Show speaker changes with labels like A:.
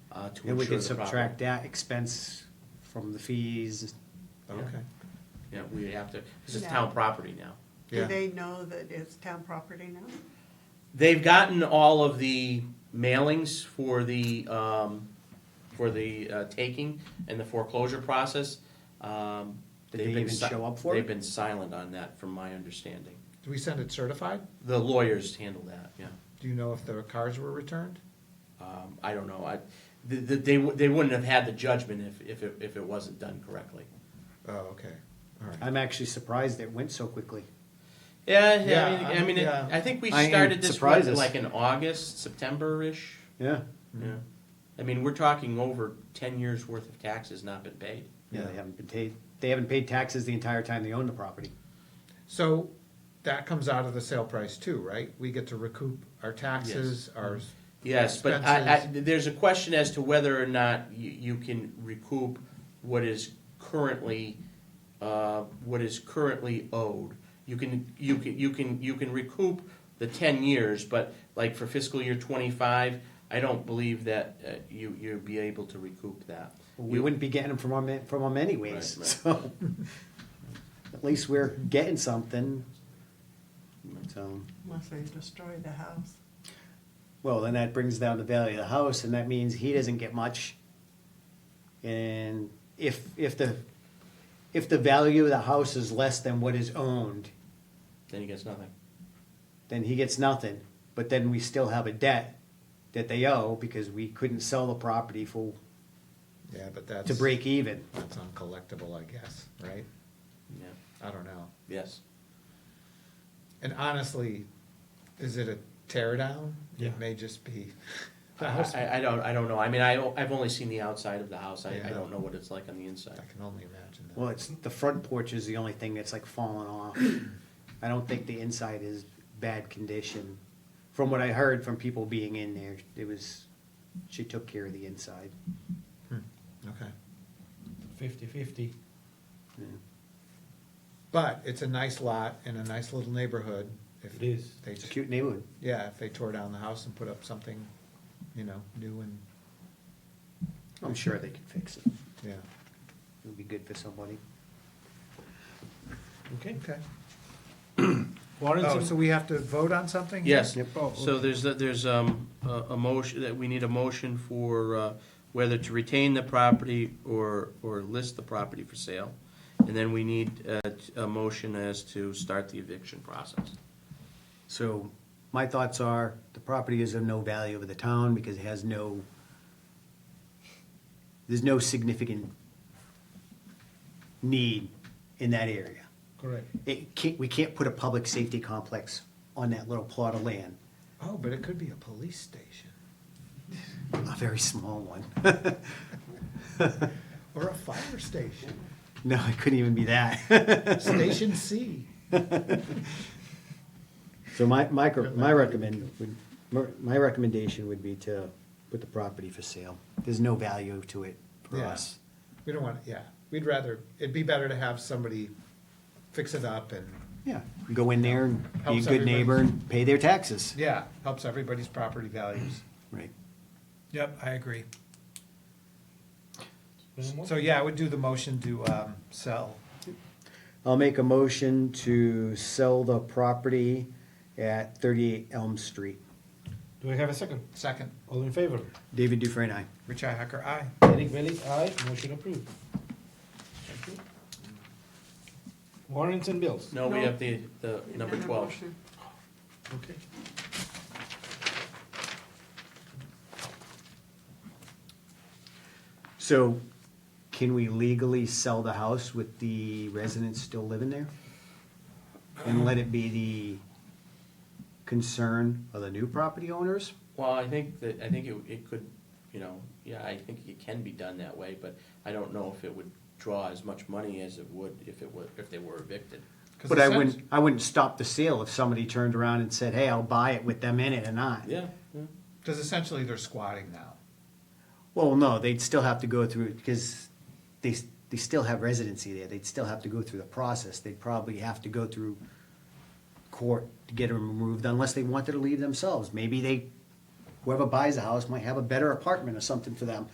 A: to
B: And we can
A: insure the property.
B: subtract that expense from the fees.
A: Okay,
C: Yeah, we would have to, because it's
D: No.
C: town property now.
A: yeah.
D: Do they know that it's town property now?
C: They've gotten all of the mailings for the, um, for the uh, taking and the foreclosure process. Um,
B: Did
C: they've
B: they
C: been
B: even
C: si-
B: show up for
C: They've
B: it?
C: been silent on that, from my understanding.
A: Do we send it certified?
C: The lawyers handle that, yeah.
A: Do you know if the cars were returned?
C: Um, I don't know, I, the, the, they, wou- they wouldn't have had the judgment if, if it, if it wasn't done correctly.
A: Oh, okay, all right.
B: I'm actually surprised it went so quickly.
C: Yeah,
A: Yeah,
C: yeah, I mean, I
A: I'm-
C: mean, it-
A: yeah.
C: I think we
B: I am
C: started this
B: surprised
C: what,
B: it's-
C: like in August, September-ish.
B: Yeah,
C: Yeah. I mean, we're talking over ten years' worth of taxes not been paid.
B: yeah, they
A: Yeah.
B: haven't been paid, they haven't paid taxes the entire time they own the property.
A: So that comes out of the sale price too, right? We get to recoup our taxes, our.
C: Yes, but I, I,
A: expenses.
C: there's a question as to whether or not you, you can recoup what is currently, uh, what is currently owed. You can, you can, you can, you can recoup the ten years, but like for fiscal year twenty-five, I don't believe that, uh, you, you'd be able to recoup that.
B: We
C: You-
B: wouldn't be getting them from our, ma- from them anyways,
C: Right, right.
B: so. At least we're getting something. So,
D: Unless they destroy the house.
B: well, then that brings down the value of the house, and that means he doesn't get much. And if, if the, if the value of the house is less than what is owned,
C: Then he gets nothing.
B: then he gets nothing. But then we still have a debt that they owe because we couldn't sell the property for,
A: Yeah, but that's.
B: to break even.
A: That's uncollectible, I guess, right?
C: Yeah,
A: I don't know.
C: yes.
A: And honestly, is it a tear down?
C: Yeah.
A: It may just be. the house-
C: I, I don't, I don't know. I mean, I, I've only seen the outside of the house. I, I
A: Yeah.
C: don't know what it's like on the inside.
A: I can only imagine that.
B: Well, it's, the front porch is the only thing that's like fallen off. I don't think the inside is bad condition. From what I heard from people being in there, it was, she took care of the inside.
A: Okay.
E: fifty-fifty.
B: Yeah.
A: But it's a nice lot in a nice little neighborhood. If
E: It is.
A: They
B: It's a
A: just,
B: cute neighborhood.
A: yeah, if they tore down the house and put up something, you know, new and,
B: I'm sure they could fix it.
A: yeah.
B: It'd be good for somebody.
E: Okay.
A: Okay.
E: Warrants
A: Oh,
E: and-
A: so we have to vote on something?
C: Yes,
B: Yep.
E: Oh,
C: so there's, the- there's um, a a motion, that we need a motion for uh, whether to retain the property or, or list the property for sale. And then we need uh, a motion as to start the eviction process.
B: So my thoughts are, the property is of no value to the town because it has no, there's no significant need in that area.
E: Correct.
B: It can't, we can't put a public safety complex on that little plot of land,
A: Oh, but it could be a police station
B: a very small one.
A: or a fire station,
B: No, it couldn't even be that.
A: Station C.
B: So my, my, my recommend, would- my recommendation would be to put the property for sale. There's no value to it for
A: Yeah.
B: us.
A: We don't want, yeah, we'd rather, it'd be better to have somebody fix it up and,
B: Yeah, go in there and be a
A: Helps
B: good neighbor
A: everybody.
B: and pay their taxes.
A: yeah, helps everybody's property values.
B: Right.
A: Yep, I agree.
E: There's more?
A: So, yeah, I would do the motion to, um, sell.
B: I'll make a motion to sell the property at thirty-eight Elm Street.
E: Do I have a second?
A: Second,
E: All in favor?
B: David Dufresne, aye.
A: Richi Hacker, aye.
E: Eric Bellis, aye. Motion approved. Thank you. Warrants and bills.
C: No, we
D: No.
C: have the, the number
D: Another
C: 12.
D: motion.
E: Okay.
B: So can we legally sell the house with the residents still living there? And let it be the concern of the new property owners?
C: Well, I think that, I think it, it could, you know, yeah, I think it can be done that way, but I don't know if it would draw as much money as it would if it were, if they were evicted.
A: 'Cause
B: But
A: it
B: I
A: sounds-
B: wouldn't, I wouldn't stop the sale if somebody turned around and said, hey, I'll buy it with them in it or not.
C: Yeah, yeah.
A: Because essentially they're squatting now.
B: Well, no, they'd still have to go through, because they, they still have residency there, they'd still have to go through the process, they'd probably have to go through court to get them removed, unless they wanted to leave themselves, maybe they, whoever buys the house might have a better apartment or something for them,